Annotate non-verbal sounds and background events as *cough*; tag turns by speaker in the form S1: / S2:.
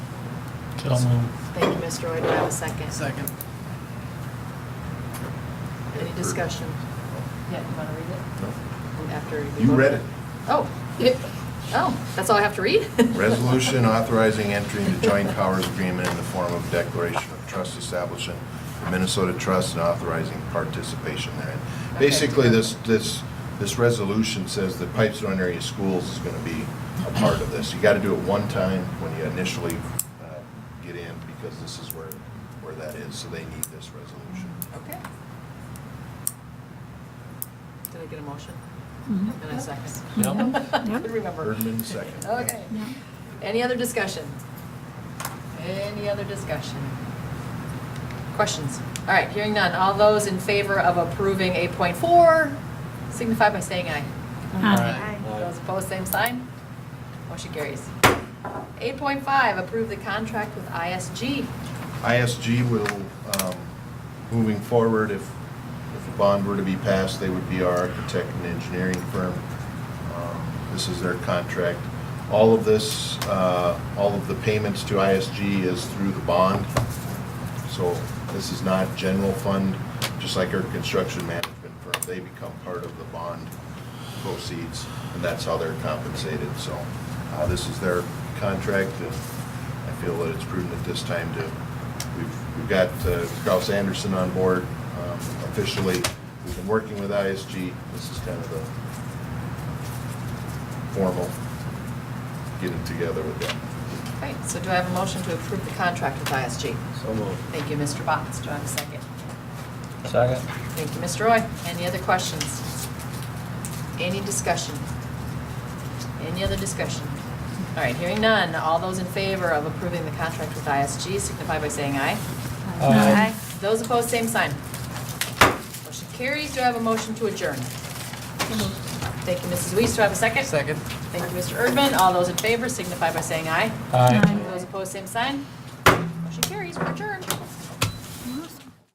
S1: So moved.
S2: Thank you, Mr. Roy. Do I have a second?
S3: Second.
S2: Any discussion? Yeah, you want to read it after? we
S4: You
S2: vote?
S4: read it.
S2: Oh, it- oh, that's all I have to read? *laughs*
S4: Resolution authorizing entry into joint powers agreement in the form of declaration of trust establishing the Minnesota Trust and authorizing participation therein.
S2: Okay.
S4: Basically, this, this, this resolution says that Pipestone area schools is going to be a part of this. You got to do it one time when you initially uh, get in, because this is where, where that is, so they need this resolution.
S2: Okay. Did I get a motion?
S5: Mhm.
S2: And a second?
S1: Yep.
S2: *laughs*
S5: Yep.
S2: Couldn't remember.
S4: Erdman, second.
S2: Okay.
S5: Yeah.
S2: Any other discussion? Any other discussion? Questions? All right, hearing none. All those in favor of approving 8.4 signify by saying aye.
S5: Aye.
S2: Those opposed, same sign. Motion carries. 8.5, approve the contract with ISG.
S4: ISG will, um, moving forward, if, if a bond were to be passed, they would be our architect and engineering firm. Um, This is their contract. All of this, uh, all of the payments to ISG is through the bond. So this is not general fund, just like our construction management firm. They become part of the bond proceeds, and that's how they're compensated. So uh, this is their contract, and I feel that it's prudent at this time to, we've, we've got uh, Kraus Anderson on board um, officially. We've been working with ISG. This is kind of the formal getting together with them.
S2: All right, so do I have a motion to approve the contract with ISG?
S6: So moved.
S2: Thank you, Mr. Botts. Do I have a second?
S1: Second.
S2: Thank you, Mr. Roy. Any other questions? Any discussion? Any other discussion? All right, hearing none. All those in favor of approving the contract with ISG signify by saying aye.
S1: Aye.
S2: Those opposed, same sign. Motion carries. Do I have a motion to adjourn? Thank you, Mrs. Weiss. Do I have a second?
S3: Second.
S2: Thank you, Mr. Erdman. All those in favor signify by saying aye.
S1: Aye.
S2: Those opposed, same sign. Motion carries. We're adjourned.